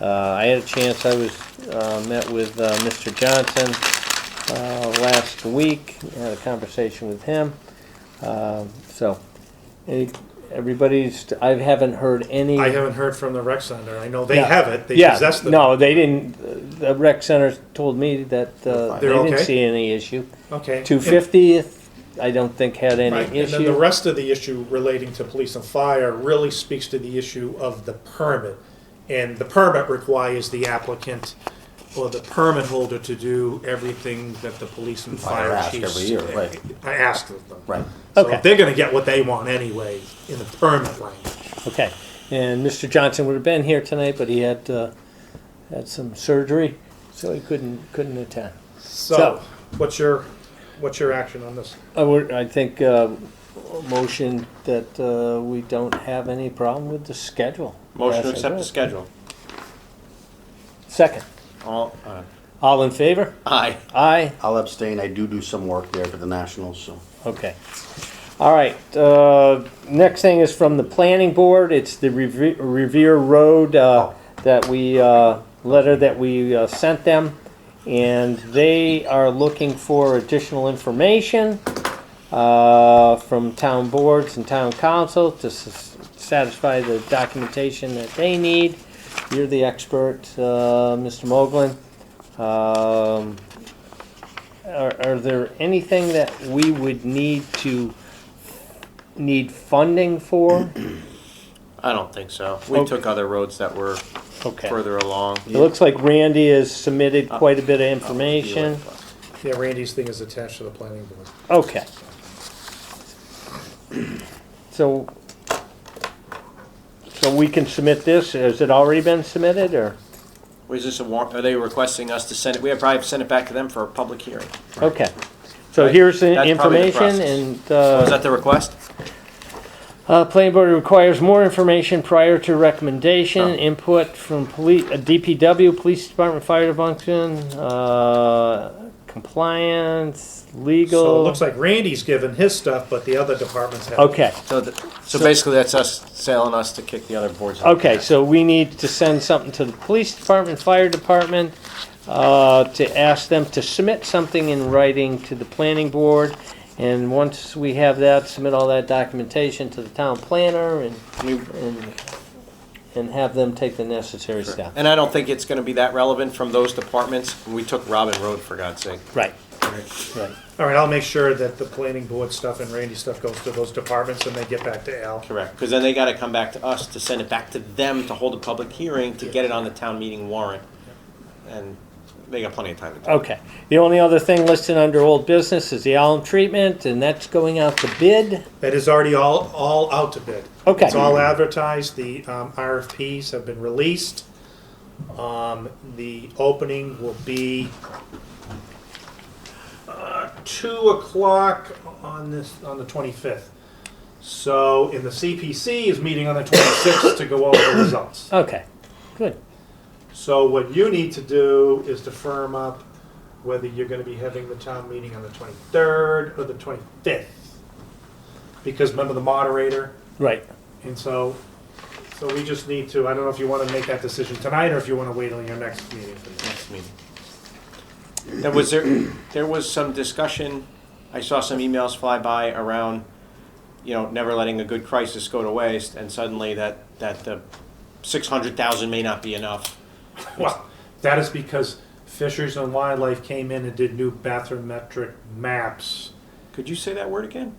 Uh, I had a chance, I was, uh, met with uh, Mr. Johnson uh, last week, had a conversation with him. Um, So, any- everybody's, I haven't heard any. I haven't heard from the rec center. I know they Yeah. have it. They Yeah, possess it. No, they didn't, the rec center told me that uh, they They're didn't okay? see any issue. Okay. Two fiftieth, I don't think had And- any Right. And then the issue. rest of the issue relating to police and fire really speaks to the issue of the permit. And the permit requires the applicant or the permit holder to do everything that the police and Fire fire ask chiefs. every year, right. I asked of them. Right. So Okay. they're gonna get what they want anyway in the permit language. Okay, and Mr. Johnson would have been here tonight, but he had, uh, had some surgery, so he couldn't, couldn't attend. So- So, what's your, what's your action on this? I would, I think, uh, motion that, uh, we don't have any problem with the schedule. Motion to As I accept the read. schedule. Second, All, uh, all in favor? Aye. Aye, I'll abstain. I do do some work there for the Nationals, so. Okay. All right, uh, next thing is from the planning board, it's the Reve- Revere Road, uh, that we, uh, letter that we uh, sent them. And they are looking for additional information, uh, from town boards and town council to s- satisfy the documentation that they need. You're the expert, uh, Mr. Moglen. Um, are, are there anything that we would need to, need funding for? I don't think so. We Okay. took other roads that were Okay. It further along. looks like Randy has submitted Uh, quite a bit of information. Yeah, Randy's thing is attached to the planning board. Okay. So, so we can submit this, has it already been submitted, or? Was this a warrant, are they requesting us to send it? We have probably sent it back to them for a public hearing. Okay. So Right. here's the That's probably the information process. and, Was uh, that the request? uh, planning board requires more information prior to recommendation, Oh. input from police, uh, DPW, police department, fire department, uh, compliance, So it legal. looks like Randy's given his stuff, but the other departments have. Okay. So, th- so basically that's us selling us to kick the other boards. out. Okay, so we need to send something to the police department, fire department, uh, to ask them to submit something in writing to the planning board. And once we have that, submit all that documentation to the town planner and, We- and, and have them take the necessary steps. And I don't think it's gonna be that relevant from those departments. We took Robin Road, for God's sake. Right, All right. right, I'll make sure that the planning board stuff and Randy's stuff goes to those departments and they get back to Al. Correct, because then they gotta come back to us to send it back to them to hold a public hearing to get it on the town meeting warrant. And they got plenty of time to do it. Okay. The only other thing listed under old business is the alum treatment, and that's going out to bid. That is already all, all out to bid. Okay. It's all advertised, the um, RFPs have been released. Um, The opening will be uh, two o'clock on this, on the twenty-fifth. So, and the CPC is meeting on the twenty-sixth to go over the results. Okay, good. So what you need to do is to firm up whether you're gonna be having the town meeting on the twenty-third or the twenty-fifth. Because remember the moderator, Right. and so, so we just need to, I don't know if you wanna make that decision tonight or if you wanna wait till your next meeting. for that. next meeting. There was, there, there was some discussion, I saw some emails fly by around, you know, never letting a good crisis go to waste, and suddenly that, that the six hundred thousand may not be enough. Well, that is because Fishers and Wildlife came in and did new bathymetric maps. Could you say that word again?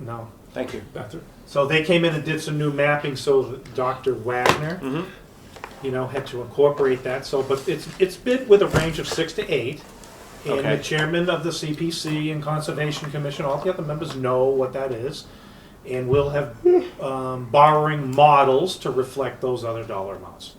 No, Thank you. bathymetric. So they came in and did some new mapping, so that Dr. Wagner Mm-hmm. you know, had to incorporate that, so, but it's, it's bid with a range of six to eight. And the Okay. chairman of the CPC and Conservation Commission, all the other members know what that is. And we'll have, um, borrowing models to reflect those other dollar amounts.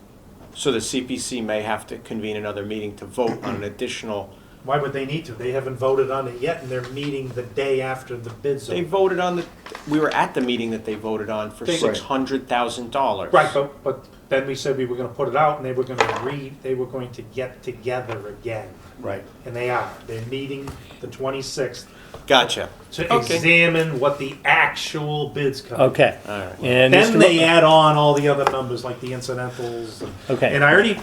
So the CPC may have to convene another meeting to vote on an additional, Why would they need to? They haven't voted on it yet, and they're meeting the day after the bid's they over. voted on the, we were at the meeting that they voted on for They- six hundred thousand dollars. Right, but, but then we said we were gonna put it out, and they were gonna re, they were going to get together again. Right. And they are, they're meeting the twenty-sixth Gotcha, to Okay. examine what the actual bids come. Okay. alright. And Mr. Then Mo- they add on all the other numbers like the incidentals. and- Okay. And I already